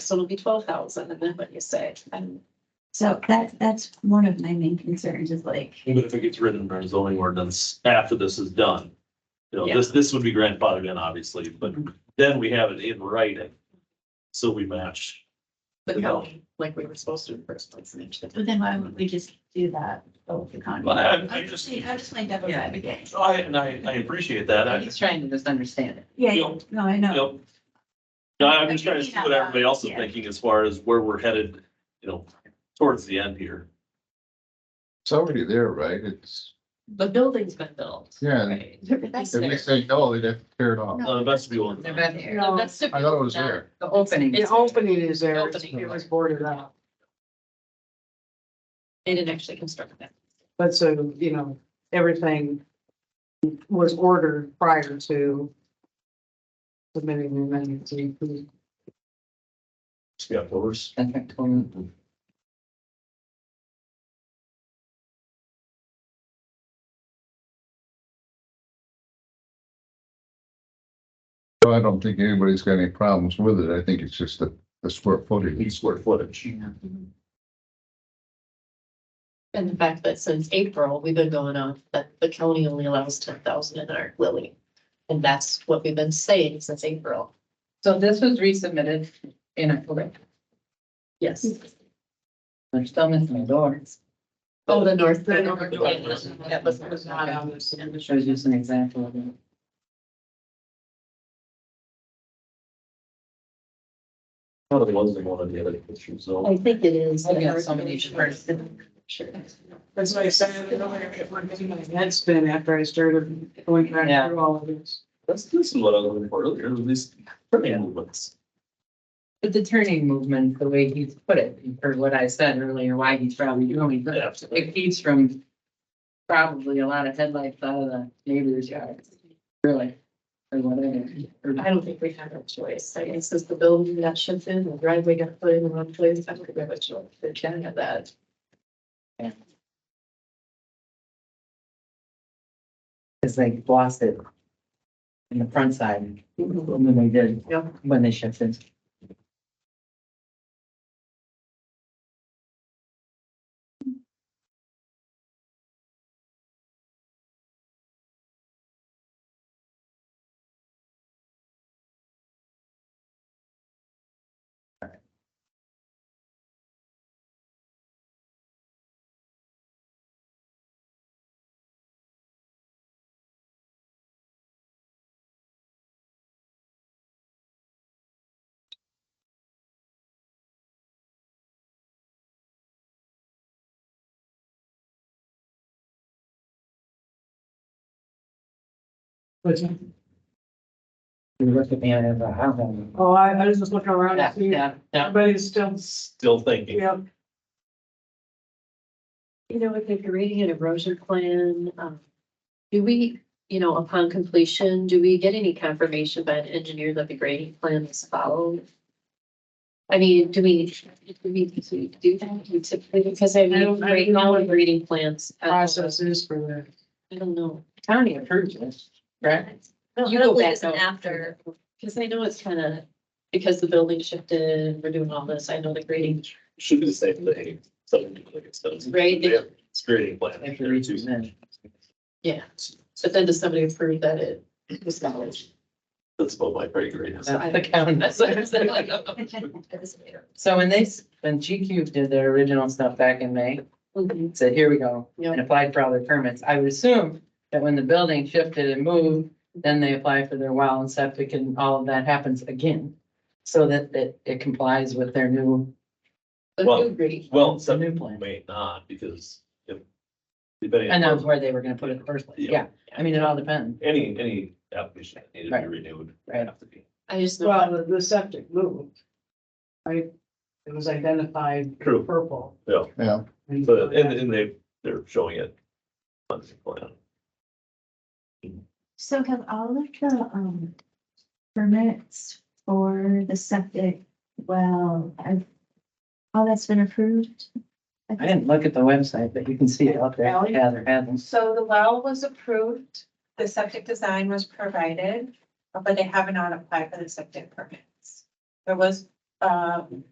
So it'll be twelve thousand, and then what you say, and So that, that's one of my main concerns is like, Even if it gets written in our zoning ordinance after this is done. You know, this, this would be grandfathered in, obviously, but then we have it in writing. So we match. the county, like we were supposed to in the first place. and each- but then why would we just do that with the county? Well, I- I I'm just- just, I'm just playing devil's Yeah. advocate. So Oh, I, and I, I appreciate that. I, He's trying to just understand it. Yeah, Yeah. no, I you know. know, no, I'm just trying to see what everybody else is thinking as far as where we're headed, you know, towards the end here. It's already there, right? It's, The building's been built. Yeah. Right. if they say no, they'd have to tear it off. Uh, The vestibule. They're back here. No, That's I thought it was there. The opening. the opening is there, it's- Opening. it was boarded up, They didn't actually construct that. but so, you know, everything was ordered prior to submitting the amendment to E include Yeah, of course. Contract total. So I don't think anybody's got any problems with it. I think it's just the, the square footage. Square footage. And the fact that since April, we've been going on, that the county only allows ten thousand in our Lily. And that's what we've been saying since April. So this was resubmitted in October. Yes. They're still missing the doors. Oh, the north. The north door. That was, was not on this. It shows just an example of it. One of the ones they wanted the other pictures, so. I think it is. I've got so many shirts. Sure. That's why I said, you know, if we're getting my head spin after I started going back Yeah. through all of this. That's, this is what I was looking for earlier, these permanent movements. But the turning movement, the way he's put it, you heard what I said earlier, why he's probably doing it. Absolutely. It keeps from probably a lot of headlights out of the neighbor's yard, really, or whatever. Or I don't think we have a choice. I guess is the building that shifts in, the driveway got put in the wrong place. I don't think we have a choice. They can't have that. Cause they lost it in the front side, when they did, Yep. when they shifted. But, You look at me, I have a problem. oh, I, I was just looking around Yeah, and see, yeah, yeah. everybody's still, Still thinking. yeah, You know, if you're reading an erosion plan, um, do we, you know, upon completion, do we get any confirmation by an engineer that the grading plan is followed? I mean, do we, do we, do we do that Do we typically, because I I don't- mean, I don't right now, know. we're reading plans. uh, processes for that. I don't know. County approved this, right? You go back after. Because I know it's kind of, because the building shifted, we're doing all this, I know the grading, Should be the same thing, something like it's done. Right, they- It's creating plan. If you read through that. yeah. But then does somebody approve that it was valid? That's about my pay grade. That's the county, that's what I'm saying. So when they, s- when GQ did their original stuff back in May, Mhm. said, here we go, Yeah. and applied for all their permits, I would assume that when the building shifted and moved, then they apply for their well and septic and all of that happens again. So that, that it complies with their new, The Well, new grading. Well, some implant may not because if. Depending. and that was on where they were gonna put it in the first place, yeah, I mean, it all depends, Any, any application that needed to be Right. renewed. would Right. have to be. I just know. Well, the- the septic moved. Right? It was identified True. purple. Yeah. And- But, and, and they, they're showing it. on the plan. So have all of the, um, permits for the septic, well, I've, all that's been approved? I didn't look at the website, but you can see it up there, Alley? yeah, there has them. So the well was approved, the septic uh, design was provided, but they have not applied for the septic permits. There was um,